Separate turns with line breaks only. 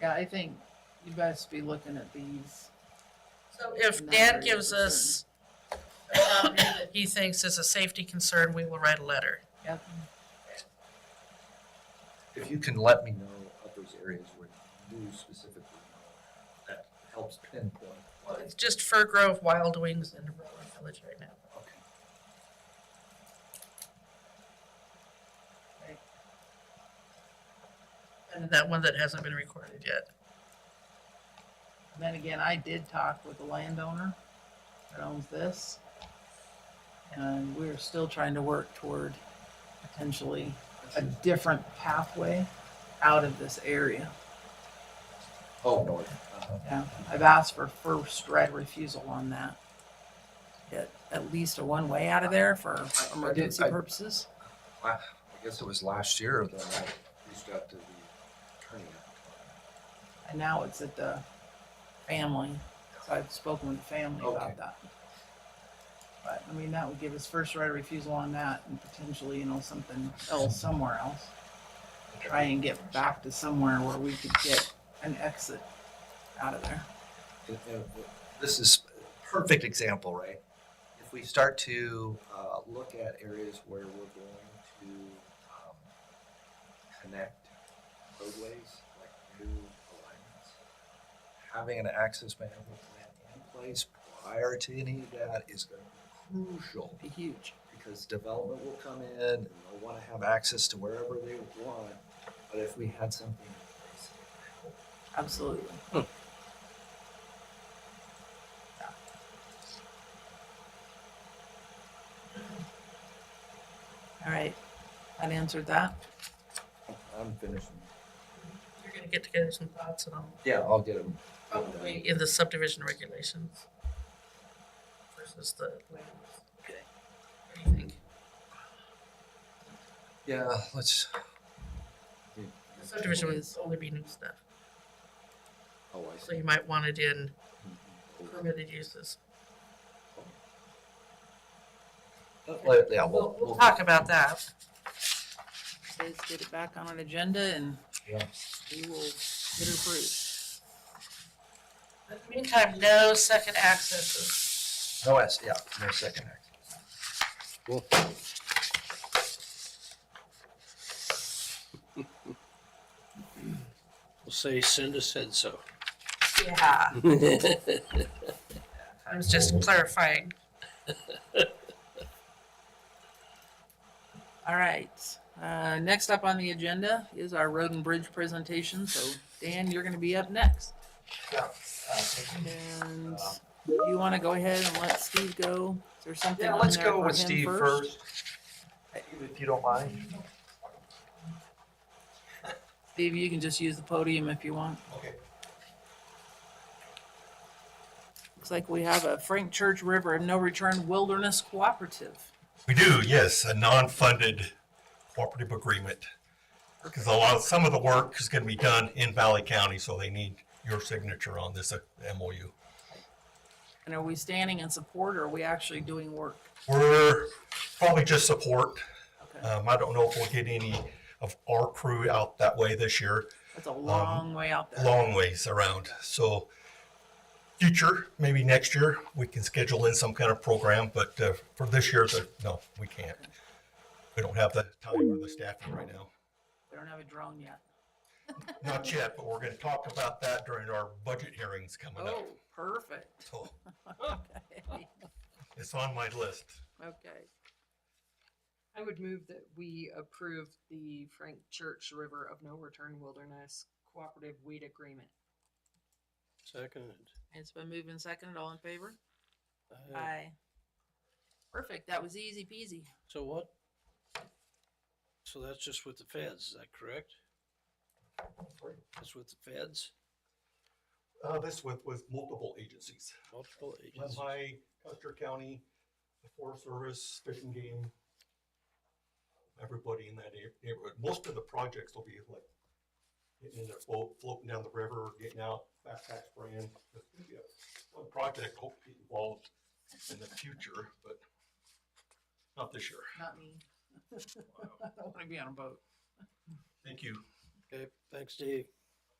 Yeah, I think you best be looking at these.
So
Not
if
very
Dad gives us a property that he thinks is a safety concern, we will write a letter.
Yep.
If you can let me know of those areas where you specifically know, that helps pinpoint what.
It's just Fir Grove, Wild Wings, and Aurora Village right now.
Okay.
And that one that hasn't been recorded yet.
And Then again, I did talk with the landowner that owns this. And we're still trying to work toward potentially a different pathway out of this area.
Oh, north. Uh-huh.
Yeah, I've asked for first right refusal on that. At, at least a one-way out of there for emergency
I-
purposes.
Wow, I guess it was last year that I reached out to the attorney.
And now it's at the family, so I've spoken with the family
Okay.
about that. But, I mean, that would give us first right of refusal on that and potentially, you know, something else somewhere else. Try and get back to somewhere where we could get an exit out of there.
And- and This is a perfect example, right? If we start to uh, look at areas where we're going to um, connect roadways, like new alignments, having an access management plan in place prior to any of that is going to be crucial
Be huge.
because development will come in and they'll want to have access to wherever they want. But if we had something in place,
Absolutely. All right, that answered that.
I'm finishing.
You're gonna get together some thoughts on
Yeah, I'll get them.
probably in the subdivision regulations versus the land. Okay. What do you think?
Yeah, let's.
The Subdivision would only be new stuff,
Oh, I
so
see.
you might want it in permitted uses.
Uh, well, Yeah, we'll,
We'll,
we'll.
we'll talk about that.
Let's get it back on an agenda and
Yeah.
we will get it approved.
In the meantime, no second accesses.
No, S, yeah, no second act.
Cool. We'll say Cinda said so.
Yeah. I was just clarifying.
All right, uh, next up on the agenda is our road and bridge presentation, so Dan, you're gonna be up next. And you wanna go ahead and let Steve go? Is there something
Yeah,
on
let's
there
go
for
with
uh, him
Steve first. If you don't mind.
Steve, you can just use the podium if you want.
Okay.
Looks like we have a Frank Church River and No Return Wilderness Cooperative.
We do, yes, a non-funded cooperative agreement. Because a lot, some of the work is gonna be done in Valley County, so they need your signature on this uh, MOU.
And are we standing in support or are we actually doing work?
We're probably just support.
Okay,
Um, I don't know if we'll get any of our crew out that way this year,
that's a long way out there.
long ways around, so. Future, maybe next year, we can schedule in some kind of program, but, uh, for this year, the- no, we can't. We don't have the time or the staffing right now.
They don't have a drone yet.
Not yet, but we're gonna talk about that during our budget hearings coming
Oh,
up.
perfect.
So
Okay.
it's on my list.
Okay.
I would move that we approve the Frank Church River of No Return Wilderness Cooperative Weed Agreement.
Seconded.
It's been moved and seconded. All in favor?
Uh,
Aye. Perfect. That was easy peasy.
So what? So that's just with the feds, is that correct? That's with the feds,
Uh, this with, with multiple agencies,
multiple agents.
Lehigh, Custer County, the Forest Service, Fish and Game. Everybody in that neigh- neighborhood. Most of the projects will be like getting in their boat, floating down the river, getting out, backpack spraying. It's gonna be a- One project hopefully involved in the future, but not this year.
Not me. I don't want to be on a boat.
Thank you.
Okay, thanks, Dave.